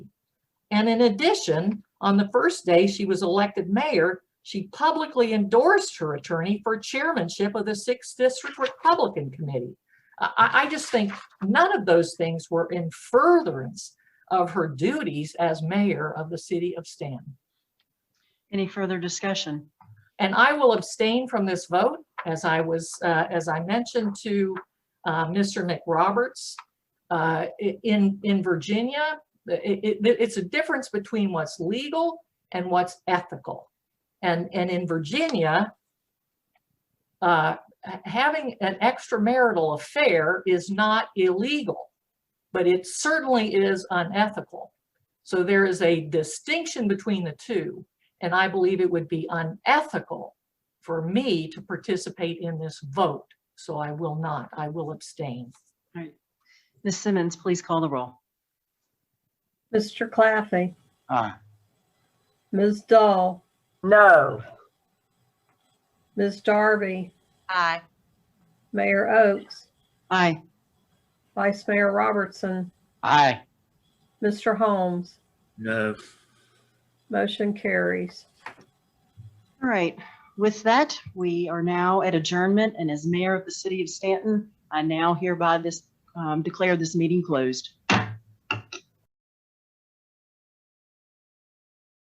And in addition, on the first day she was elected mayor, she publicly endorsed her attorney for chairmanship of the Sixth District Republican Committee. I, I- I just think none of those things were in furtherance of her duties as mayor of the city of Stanton. Any further discussion? And I will abstain from this vote, as I was, uh, as I mentioned to uh, Mr. McRoberts. uh, i- In, in Virginia, the- it, it, it's a difference between what's legal and what's ethical. And, and in Virginia, uh, ha- having an extramarital affair is not illegal, but it certainly is unethical. So there is a distinction between the two. And I believe it would be unethical for me to participate in this vote. So I will not, I will abstain. All right. Ms. Simmons, please call the roll. Mr. Claffey, Aye. Ms. Dahl, No. Ms. Darby, Aye. Mayor Oakes, Aye. Vice Mayor Robertson, Aye. Mr. Holmes, No. motion carries. All right. With that, we are now at adjournment and as mayor of the city of Stanton, I now hereby this, um, declare this meeting closed.